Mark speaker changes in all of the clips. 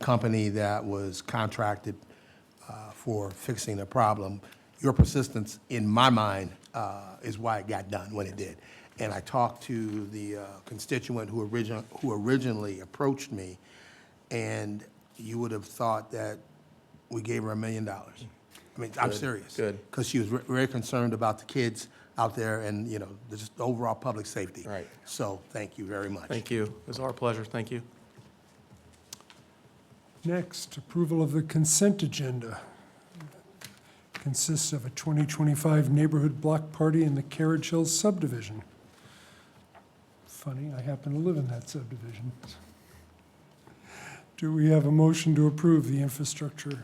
Speaker 1: company that was contracted uh, for fixing the problem. Your persistence, in my mind, uh, is why it got done when it did. And I talked to the uh, constituent who origin, who originally approached me, and you would have thought that we gave her a million dollars. I mean, I'm serious.
Speaker 2: good.
Speaker 1: Because she was ve- very concerned about the kids out there and, you know, the just overall public safety.
Speaker 2: Right.
Speaker 1: So, thank you very much.
Speaker 2: Thank you. It's our pleasure. Thank you.
Speaker 3: Next, approval of the consent agenda. Consists of a 2025 neighborhood block party in the Carriage Hills subdivision. Funny, I happen to live in that subdivision. Do we have a motion to approve the infrastructure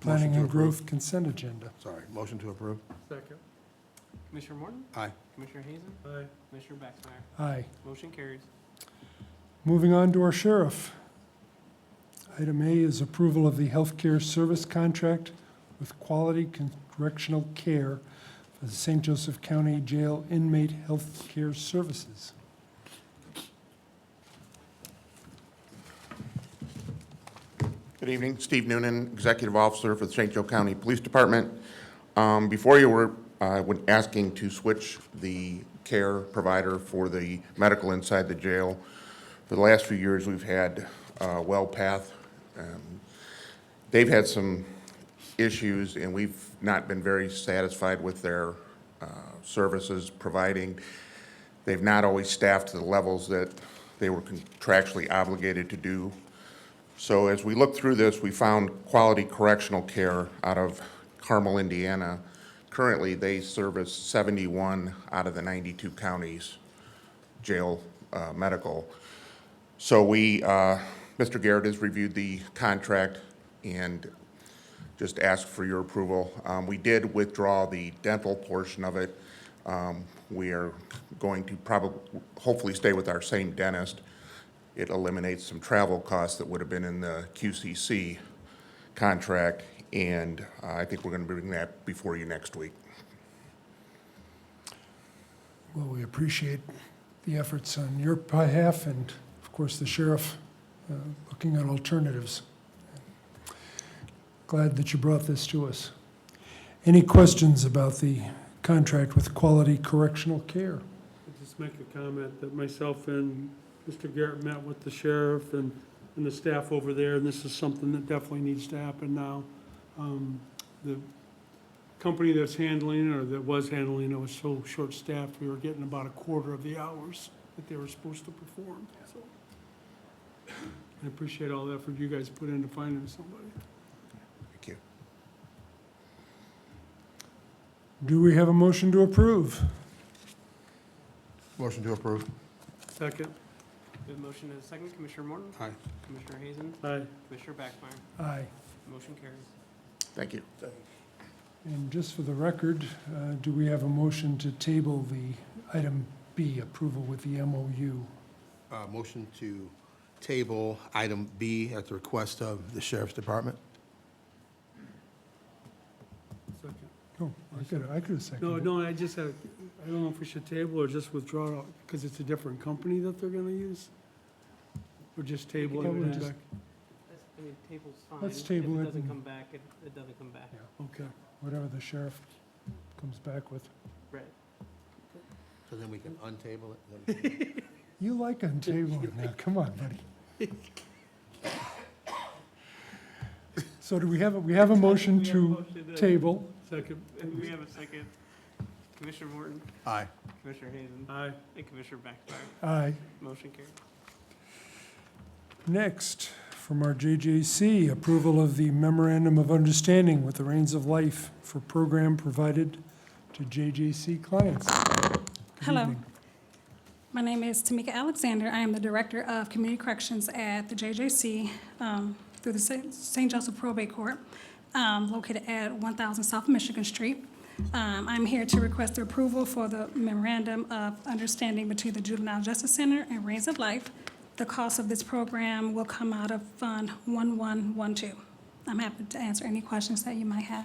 Speaker 3: planning
Speaker 1: Motion to
Speaker 3: and growth consent agenda?
Speaker 1: Sorry, motion to approve?
Speaker 4: Second.
Speaker 5: Commissioner Morton?
Speaker 1: Aye.
Speaker 5: Commissioner Hazen?
Speaker 4: Aye.
Speaker 5: Commissioner Baxmeyer?
Speaker 3: Aye.
Speaker 5: Motion carries.
Speaker 3: Moving on to our sheriff. Item A is approval of the healthcare service contract with Quality Correctional Care for the St. Joseph County Jail Inmate Healthcare Services.
Speaker 6: Good evening, Steve Noonan, Executive Officer for the St. Joe County Police Department. Um, Before you were, uh, when asking to switch the care provider for the medical inside the jail, for the last few years, we've had uh, WellPath. Um, They've had some issues, and we've not been very satisfied with their uh, services providing. They've not always staffed to the levels that they were contractually obligated to do. So as we looked through this, we found Quality Correctional Care out of Carmel, Indiana. Currently, they service 71 out of the 92 counties jail uh, medical. So we, uh, Mr. Garrett has reviewed the contract and just ask for your approval. Um, We did withdraw the dental portion of it. Um, We are going to probably, hopefully stay with our same dentist. It eliminates some travel costs that would have been in the QCC contract, and uh, I think we're going to bring that before you next week.
Speaker 3: Well, we appreciate the efforts on your behalf and, of course, the sheriff uh, looking at alternatives. Glad that you brought this to us. Any questions about the contract with Quality Correctional Care?
Speaker 4: I'll Just make a comment that myself and Mr. Garrett met with the sheriff and, and the staff over there, and this is something that definitely needs to happen now. Um, The company that's handling it, or that was handling it, was so short-staffed, we were getting about a quarter of the hours that they were supposed to perform, so. I appreciate all the effort you guys put into finding somebody.
Speaker 6: Thank you.
Speaker 3: Do we have a motion to approve?
Speaker 1: Motion to approve.
Speaker 4: Second,
Speaker 5: We have a motion and a second. Commissioner Morton?
Speaker 1: Aye.
Speaker 5: Commissioner Hazen?
Speaker 4: aye.
Speaker 5: Commissioner Baxmeyer?
Speaker 3: Aye.
Speaker 5: Motion carries.
Speaker 6: Thank you.
Speaker 3: And just for the record, uh, do we have a motion to table the item B, approval with the MOU?
Speaker 1: Uh, motion to table item B at the request of the sheriff's department.
Speaker 4: Second.
Speaker 3: Oh, I could, I could have seconded.
Speaker 4: No,
Speaker 3: it.
Speaker 4: no, I just have, I don't know if we should table or just withdraw, because it's a different company that they're gonna use? Or just table it
Speaker 3: Yeah, we'll
Speaker 4: and
Speaker 3: just-
Speaker 4: back?
Speaker 5: That's- I mean, table's fine.
Speaker 3: Let's table it
Speaker 5: If it doesn't
Speaker 3: and-
Speaker 5: come back, it, it doesn't come back.
Speaker 4: Okay,
Speaker 3: Whatever the sheriff comes back with.
Speaker 5: Right.
Speaker 1: So then we can untable it.
Speaker 3: You like untabling now, come on, buddy. So do we have, a we have a motion
Speaker 5: We have a
Speaker 3: to
Speaker 5: motion and-
Speaker 3: table?
Speaker 4: second,
Speaker 5: And we have a second. Commissioner Morton?
Speaker 1: Aye.
Speaker 5: Commissioner Hazen?
Speaker 4: aye.
Speaker 5: And Commissioner Baxmeyer?
Speaker 3: Aye.
Speaker 5: Motion carries.
Speaker 3: Next, from our JJC, approval of the memorandum of understanding with the Reins of Life for program provided to JJC clients. Good
Speaker 7: Hello.
Speaker 3: evening.
Speaker 7: My name is Tamika Alexander. I am the Director of Community Corrections at the JJC um, through the St. St. Joseph Probate Court, um, located at 1,000 South Michigan Street. Um, I'm here to request the approval for the memorandum of understanding between the Juvenile Justice Center and Reins of Life. The cost of this program will come out of Fund 1112. I'm happy to answer any questions that you might have.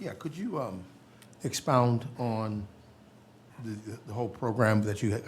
Speaker 1: Yeah, could you, um, expound on the, the- the whole program that you